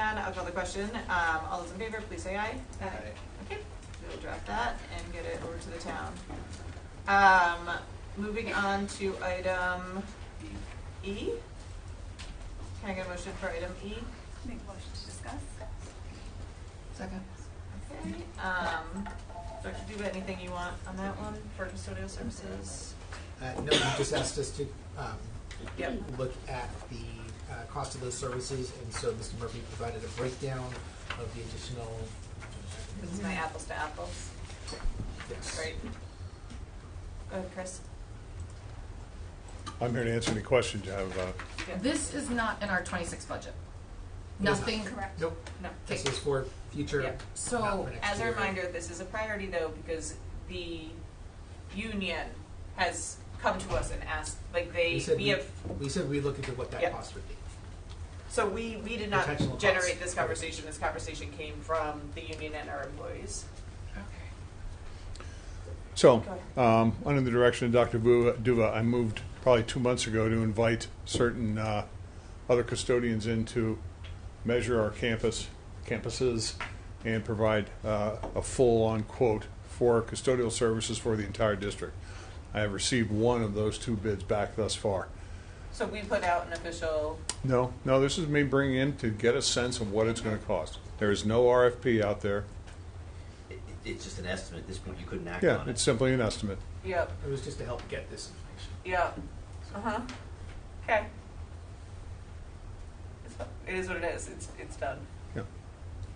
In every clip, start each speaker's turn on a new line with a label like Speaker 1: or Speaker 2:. Speaker 1: I'll call the question. Um, all those in favor, please say aye.
Speaker 2: Aye.
Speaker 1: Okay, we'll draft that and get it over to the town. Um, moving on to item E. Can I get a motion for item E?
Speaker 3: Make motion to discuss?
Speaker 1: Second. Okay, um, Dr. Duba, anything you want on that one for custodial services?
Speaker 4: Uh, No, you just asked us to um,
Speaker 1: Yep.
Speaker 4: look at the uh, cost of those services, and so Mr. Murphy provided a breakdown of the additional,
Speaker 1: This is my apples to apples.
Speaker 4: yes.
Speaker 1: Great. Go ahead, Chris.
Speaker 5: I'm here to answer any questions you have about.
Speaker 1: Yeah.
Speaker 6: This is not in our twenty-six budget.
Speaker 4: It is not.
Speaker 6: Nothing,
Speaker 3: Correct.
Speaker 4: Nope,
Speaker 1: No.
Speaker 4: this is for future,
Speaker 1: Yeah.
Speaker 6: So,
Speaker 4: not for next
Speaker 1: As a
Speaker 4: year.
Speaker 1: reminder, this is a priority though, because the union has come to us and asked, like
Speaker 4: We
Speaker 1: they,
Speaker 4: said
Speaker 1: we have,
Speaker 4: We said we'd look into what
Speaker 1: Yeah.
Speaker 4: that cost would be.
Speaker 1: so we, we did not
Speaker 4: Potential costs.
Speaker 1: generate this conversation, this conversation came from the union and our employees.
Speaker 5: So, um, under the direction of Dr. Vu- Duva, I moved probably two months ago to invite certain uh, other custodians in to measure our campus, campuses, and provide uh, a full-on quote for custodial services for the entire district. I have received one of those two bids back thus far.
Speaker 1: So we put out an official,
Speaker 5: No, no, this is me bringing in to get a sense of what it's going to cost. There is no RFP out there.
Speaker 2: It, it- it's just an estimate at this point, you couldn't act
Speaker 5: Yeah,
Speaker 2: on
Speaker 5: it's
Speaker 2: it.
Speaker 5: simply an estimate.
Speaker 1: yep,
Speaker 4: It was just to help get this information.
Speaker 1: yep, uh-huh, okay. It's fu- It is what it is, it's, it's done.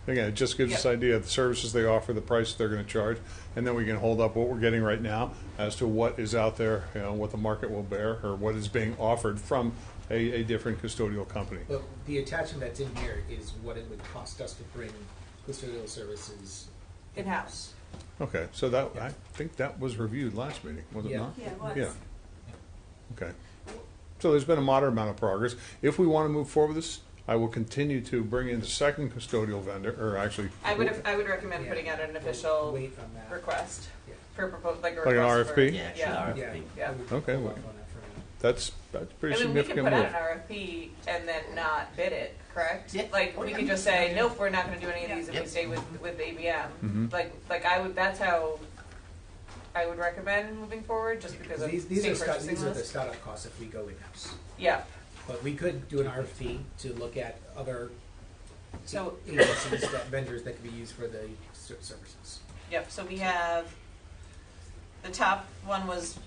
Speaker 5: Again, it just gives us
Speaker 1: Yeah.
Speaker 5: idea of the services they offer, the price they're going to charge, and then we can hold up what we're getting right now as to what is out there, you know, what the market will bear, or what is being offered from a, a different custodial company.
Speaker 4: But the attachment that's in here is what it would cost us to bring custodial services
Speaker 1: In-house.
Speaker 5: Okay, so that, I think that was reviewed last meeting, was it
Speaker 4: Yeah.
Speaker 5: not?
Speaker 3: Yeah, it was.
Speaker 5: Yeah. Okay. So there's been a moderate amount of progress. If we want to move forward with this, I will continue to bring in the second custodial vendor, or actually.
Speaker 1: I would, I would recommend
Speaker 4: Yeah.
Speaker 1: putting out an
Speaker 4: We'll
Speaker 1: official
Speaker 4: Wait on that.
Speaker 1: request
Speaker 4: Yeah.
Speaker 1: for propos, like a
Speaker 5: Like an
Speaker 1: request for-
Speaker 5: RFP?
Speaker 2: Yeah, actually,
Speaker 1: Yeah.
Speaker 2: RFP.
Speaker 4: Yeah.
Speaker 1: Yeah.
Speaker 4: I would hold
Speaker 5: Okay,
Speaker 4: off
Speaker 5: wait.
Speaker 4: on that for a minute.
Speaker 5: That's, that's a pretty
Speaker 1: I mean, we can
Speaker 5: significant
Speaker 1: put out
Speaker 5: move.
Speaker 1: an RFP and then not bid it, correct?
Speaker 2: Yeah.
Speaker 1: Like, we can just say, nope, we're not gonna do any of these if we
Speaker 2: Yep.
Speaker 1: stay with, with ABM.
Speaker 5: Mhm.
Speaker 1: Like, like I would, that's how I would recommend moving forward, just because of
Speaker 4: These, these
Speaker 1: state
Speaker 4: are, start- these
Speaker 1: purchasing
Speaker 4: are the
Speaker 1: list.
Speaker 4: startup costs if we go in-house.
Speaker 1: Yeah,
Speaker 4: But we could do an RFP to look at other
Speaker 1: So-
Speaker 4: agencies that vendors that could be used for the ser- services.
Speaker 1: yep, so we have, the top one was.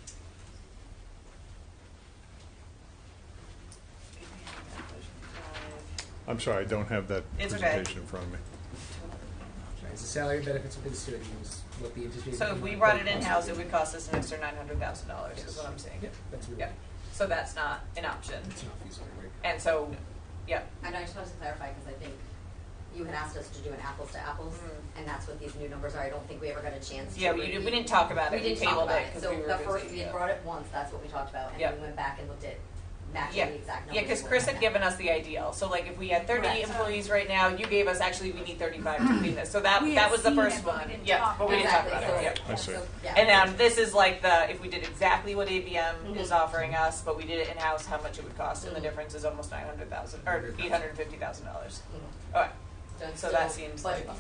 Speaker 5: I'm sorry, I don't have that
Speaker 1: It's okay.
Speaker 5: presentation in front of me.
Speaker 4: It's the salary benefits for the students, what the anticipated.
Speaker 1: So if we brought it in-house, it would cost us an extra nine hundred thousand dollars, is what I'm saying.
Speaker 4: Yeah, that's really,
Speaker 1: Yeah. So that's not an option.
Speaker 4: it's not feasible right now.
Speaker 1: And so, yeah,
Speaker 7: And I just wanted to clarify, because I think you had asked us to do an apples to apples,
Speaker 1: Mm.
Speaker 7: and that's what these new numbers are. I don't think we ever got a chance to.
Speaker 1: yeah, we didn't, we
Speaker 7: review.
Speaker 1: didn't talk about it,
Speaker 7: We
Speaker 1: we
Speaker 7: didn't talk
Speaker 1: tabled
Speaker 7: about
Speaker 1: it
Speaker 7: it,
Speaker 1: because
Speaker 7: so
Speaker 1: we were
Speaker 7: the first,
Speaker 1: busy,
Speaker 7: we
Speaker 1: yeah.
Speaker 7: had brought it once, that's what we talked about,
Speaker 1: Yeah.
Speaker 7: and we went back and looked at matching
Speaker 1: Yeah.
Speaker 7: the exact numbers.
Speaker 1: Yeah, because
Speaker 7: that
Speaker 1: Chris
Speaker 7: were
Speaker 1: had
Speaker 7: in
Speaker 1: given us the ideal, so like if we had thirty
Speaker 7: Correct.
Speaker 1: employees right now, you gave us, actually, we need thirty-five to do this, so that,
Speaker 3: We had
Speaker 1: that was the
Speaker 3: seen it,
Speaker 1: first
Speaker 3: but we
Speaker 1: one,
Speaker 3: didn't
Speaker 1: yeah,
Speaker 3: talk
Speaker 1: but
Speaker 7: that.
Speaker 1: we didn't talk about it, yeah.
Speaker 7: Exactly, so-
Speaker 5: I see.
Speaker 7: so, yeah.
Speaker 1: And um, this is like the if we did exactly what ABM is
Speaker 7: Mhm.
Speaker 1: offering us, but we did it in house, how much it would cost, and the
Speaker 7: Mhm.
Speaker 1: difference is almost nine hundred thousand or eight hundred fifty thousand dollars.
Speaker 7: Mhm.
Speaker 1: All right.
Speaker 7: it's
Speaker 1: so that
Speaker 7: still
Speaker 1: seems
Speaker 7: budget-
Speaker 1: like-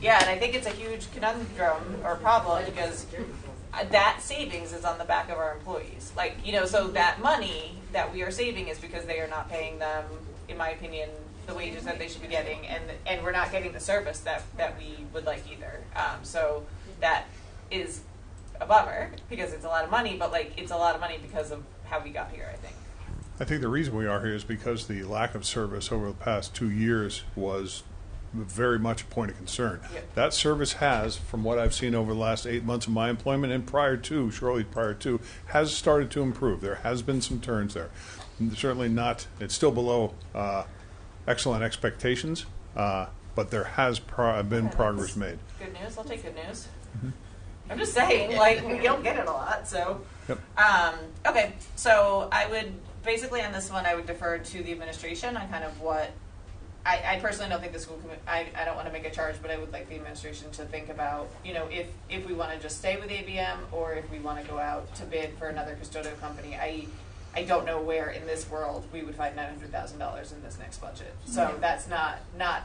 Speaker 1: Yeah, and I think it's a huge conundrum or problem
Speaker 7: budget
Speaker 1: because
Speaker 7: security.
Speaker 1: uh, that savings is on the back of our employees. Like, you know, so that money that we are saving is because they are not paying them, in my opinion, the wages that they should be getting, and and we're not getting the service that that we would like either. Um, so that is a bummer because it's a lot of money, but like it's a lot of money because of how we got here. I think.
Speaker 5: I think the reason we are here is because the lack of service over the past two years was very much a point of concern.
Speaker 1: Yep.
Speaker 5: That service has, from what I've seen over the last eight months of my employment and prior to, shortly prior to, has started to improve. There has been some turns there. Certainly not, it's still below uh, excellent expectations, uh, but there has pro- been
Speaker 1: Okay,
Speaker 5: progress
Speaker 1: that's
Speaker 5: made.
Speaker 1: Good news. I'll take good news. I'm just saying, like we don't get it a lot, so. Um, okay, so I would basically on this one, I would defer to the administration on kind of what. I, I personally don't think the school commi- I, I don't want to make a charge, but I would like the administration to think about, you know, if, if we want to just stay with ABM or if we want to go out to bid for another custodial company. I, I don't know where in this world we would find nine hundred thousand dollars in this next budget. So that's not, not